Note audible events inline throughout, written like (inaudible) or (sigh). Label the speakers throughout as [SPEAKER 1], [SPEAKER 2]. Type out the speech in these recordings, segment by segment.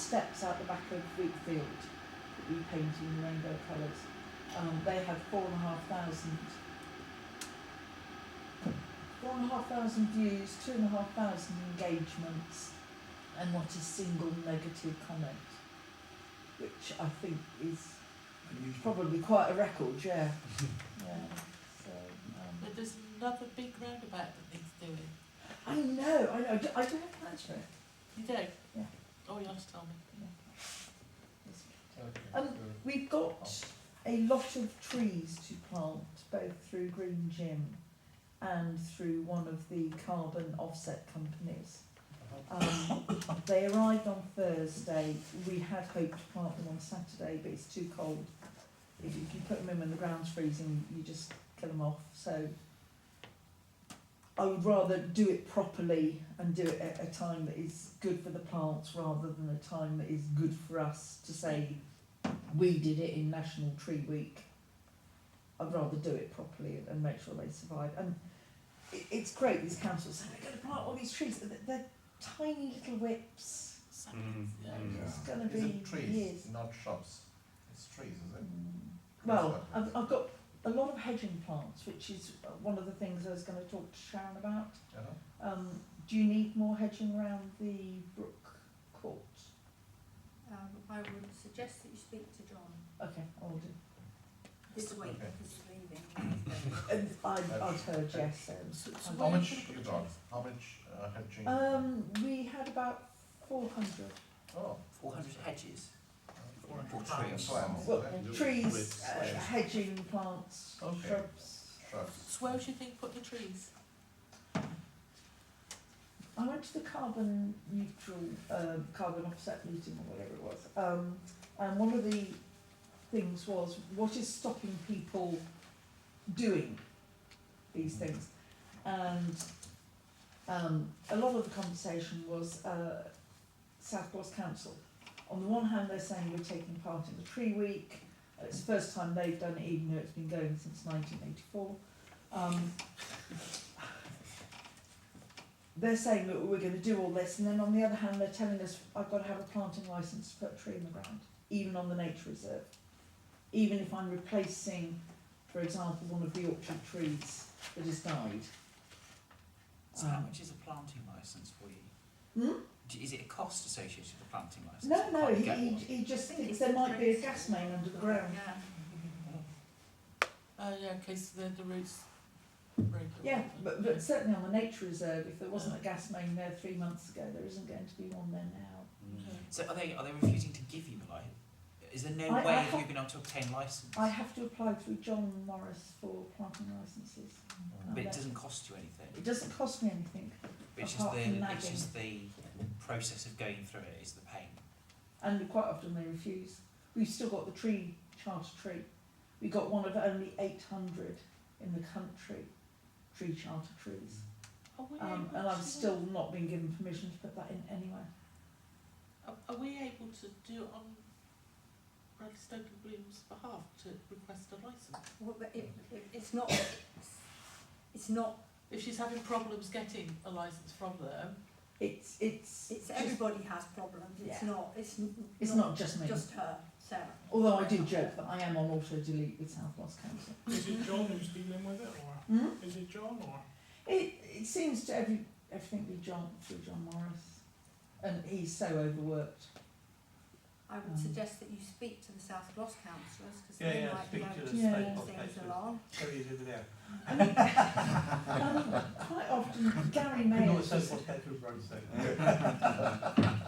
[SPEAKER 1] steps out the back of Wheatfield that we painted in rainbow colours. Um, they had four and a half thousand. Four and a half thousand views, two and a half thousand engagements, and not a single negative comment, which I think is
[SPEAKER 2] Unusual.
[SPEAKER 1] probably quite a record, yeah. yeah. So, um,
[SPEAKER 3] But there's another big roundabout that needs doing.
[SPEAKER 1] I know, I know. I don't I don't have plans for it.
[SPEAKER 3] You do?
[SPEAKER 1] Yeah.
[SPEAKER 3] Oh, you have to tell me.
[SPEAKER 1] It's
[SPEAKER 4] Okay,
[SPEAKER 1] Um, We've got a lot of trees to plant, both through Green Gym and through one of the carbon offset companies. Um, they arrived on Thursday. We had hoped to plant them on Saturday, but it's too cold. If, if you put them in when the ground's freezing, you just kill them off. So I would rather do it properly and do it at a time that is good for the plants rather than a time that is good for us to say we did it in National Tree Week. I'd rather do it properly and make sure they survive. And it, it's great these councils saying we're going to plant all these trees. They're, they're tiny little whips.
[SPEAKER 3] Saplings,
[SPEAKER 4] Mm,
[SPEAKER 3] yeah.
[SPEAKER 4] mm.
[SPEAKER 1] It's going to
[SPEAKER 5] Is
[SPEAKER 1] be
[SPEAKER 5] it trees,
[SPEAKER 1] years.
[SPEAKER 5] not shrubs? It's trees, is it?
[SPEAKER 1] Mm. Well, um, I've, I've got a lot of hedging plants, which is one of the things I was going to talk to Sharon about.
[SPEAKER 5] You know?
[SPEAKER 1] Um, do you need more hedging around the brook court?
[SPEAKER 6] Um, I would suggest that you speak to John
[SPEAKER 1] Okay, I'll do.
[SPEAKER 6] this week,
[SPEAKER 5] Okay.
[SPEAKER 6] because he's leaving.
[SPEAKER 1] (coughs) And I, I've heard yes. um,
[SPEAKER 3] So, so
[SPEAKER 1] How
[SPEAKER 5] How
[SPEAKER 3] where
[SPEAKER 5] much
[SPEAKER 3] can we
[SPEAKER 5] you
[SPEAKER 3] put
[SPEAKER 5] got?
[SPEAKER 3] trees?
[SPEAKER 5] How much uh, hedging?
[SPEAKER 1] Um, we had about four hundred.
[SPEAKER 5] oh, uh,
[SPEAKER 3] 400 hedges.
[SPEAKER 5] four
[SPEAKER 3] Four
[SPEAKER 5] hundred
[SPEAKER 3] trees.
[SPEAKER 5] plants.
[SPEAKER 1] Well,
[SPEAKER 5] eh?
[SPEAKER 1] trees,
[SPEAKER 4] with
[SPEAKER 1] uh,
[SPEAKER 4] shrubs.
[SPEAKER 1] hedging plants,
[SPEAKER 5] Okay.
[SPEAKER 1] shrubs.
[SPEAKER 5] Shrubs.
[SPEAKER 3] So where do you think put the trees?
[SPEAKER 1] I went to the carbon neutral, uh, carbon offset meeting or whatever it was, um, and one of the things was what is stopping people doing these things, and um, a lot of the conversation was uh, South Gloss Council. On the one hand, they're saying we're taking part in the Tree Week. It's the first time they've done it, even though it's been going since 1984. Um, they're saying that we're going to do all this, and then on the other hand, they're telling us I've got to have a planting license to put a tree in the ground, even on the nature reserve, even if I'm replacing, for example, one of the orchard trees that has died.
[SPEAKER 6] uh,
[SPEAKER 7] So how
[SPEAKER 1] Um,
[SPEAKER 7] much is a planting licence for you?
[SPEAKER 1] Hmm?
[SPEAKER 7] D- Is it a cost associated with a planting licence?
[SPEAKER 1] No, no,
[SPEAKER 7] Can't
[SPEAKER 1] he,
[SPEAKER 7] get
[SPEAKER 1] he,
[SPEAKER 7] one.
[SPEAKER 1] he just
[SPEAKER 6] I think
[SPEAKER 1] thinks
[SPEAKER 6] it's
[SPEAKER 1] there might be a
[SPEAKER 6] the
[SPEAKER 1] gas main under the ground.
[SPEAKER 6] Yeah.
[SPEAKER 3] Oh, yeah, in case the, the roots break. or
[SPEAKER 1] Yeah,
[SPEAKER 3] whatever.
[SPEAKER 1] but, but certainly on the nature reserve, if there wasn't a gas main there three months ago, there isn't going to be one there now.
[SPEAKER 6] Hmm.
[SPEAKER 3] Yeah.
[SPEAKER 7] So are they are they refusing to give you the license? Is there no
[SPEAKER 1] I-
[SPEAKER 7] way
[SPEAKER 1] I
[SPEAKER 7] of
[SPEAKER 1] have-
[SPEAKER 7] you being able to obtain licence?
[SPEAKER 1] I have to apply through John Morris for planting licences.
[SPEAKER 5] Mm.
[SPEAKER 7] But it doesn't cost you anything.
[SPEAKER 1] It doesn't cost me anything,
[SPEAKER 7] It's just
[SPEAKER 1] apart
[SPEAKER 7] the
[SPEAKER 1] from
[SPEAKER 7] it's
[SPEAKER 1] nagging.
[SPEAKER 7] just the process of going through it is the pain.
[SPEAKER 1] and quite often they refuse. We've still got the tree, charter tree. We got one of only eight hundred in the country, tree charter trees.
[SPEAKER 3] Are Oh, we
[SPEAKER 1] Um,
[SPEAKER 3] able
[SPEAKER 1] and I've
[SPEAKER 3] to-
[SPEAKER 1] still not been given permission to put that in anywhere.
[SPEAKER 3] Are, are we able to do it on Bradley Stoke and Bloom's behalf to request a licence?
[SPEAKER 6] Well, but it, it, it's not, it's not,
[SPEAKER 3] If she's having problems getting a licence from them,
[SPEAKER 1] It's, it's,
[SPEAKER 6] it's, everybody has problems, it's
[SPEAKER 1] Yeah.
[SPEAKER 6] not, it's n-
[SPEAKER 1] it's not just me.
[SPEAKER 6] just her, Sarah.
[SPEAKER 1] Although I do joke that I am on auto delete with South Gloss Council.
[SPEAKER 4] Is it John who's dealing with it, or
[SPEAKER 1] Hmm?
[SPEAKER 4] is it John, or?
[SPEAKER 1] It, it seems to every everything be John through John Morris, and he's so overworked.
[SPEAKER 6] I would
[SPEAKER 1] Um.
[SPEAKER 6] suggest that you speak to the South Gloss councillors, because
[SPEAKER 4] Yeah,
[SPEAKER 6] they
[SPEAKER 4] yeah,
[SPEAKER 6] might be
[SPEAKER 4] speak
[SPEAKER 6] able
[SPEAKER 4] to
[SPEAKER 6] to
[SPEAKER 1] the Yeah.
[SPEAKER 6] move
[SPEAKER 4] South Gloss
[SPEAKER 6] things
[SPEAKER 4] councillors.
[SPEAKER 6] along.
[SPEAKER 4] There he is over there.
[SPEAKER 1] I mean, um, quite often Gary Mayers, was,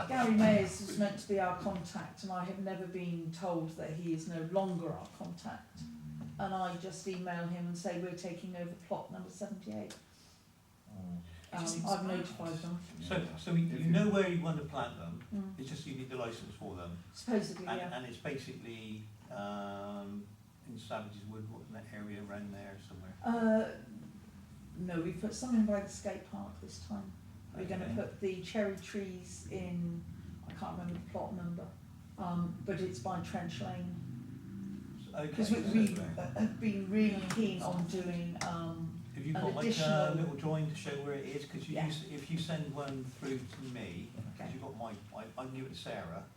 [SPEAKER 1] Gary Mayers was meant to be our contact, and I have never been told that he is no longer our contact. And I just email him and say we're taking over plot number seventy eight.
[SPEAKER 5] Mm.
[SPEAKER 1] Um,
[SPEAKER 7] just
[SPEAKER 1] I've
[SPEAKER 7] explain.
[SPEAKER 1] notified them.
[SPEAKER 8] So, so you
[SPEAKER 5] If
[SPEAKER 8] you
[SPEAKER 5] you-
[SPEAKER 8] know where you want to plant them,
[SPEAKER 1] Mm.
[SPEAKER 8] it's just you need the license for them.
[SPEAKER 1] Supposedly,
[SPEAKER 8] Hmm. And,
[SPEAKER 1] yeah.
[SPEAKER 8] and it's basically, um, in Savage's Wood, what, in that area around there somewhere.
[SPEAKER 1] Uh, no, we put some in by the skate park this time. We're going to
[SPEAKER 8] Okay.
[SPEAKER 1] put the cherry trees in, I can't remember the plot number, um, but it's by Trench Lane.
[SPEAKER 8] Okay.
[SPEAKER 1] Because we,
[SPEAKER 8] so
[SPEAKER 1] we
[SPEAKER 8] there.
[SPEAKER 1] have been really keen on doing, um,
[SPEAKER 8] Have you
[SPEAKER 1] an
[SPEAKER 8] got like a
[SPEAKER 1] additional-
[SPEAKER 8] little drawing to show where it is? Because you,
[SPEAKER 1] Yeah.
[SPEAKER 8] use- if you send one through to me,
[SPEAKER 1] Okay.
[SPEAKER 8] because you've got my, I, I can give it to Sarah.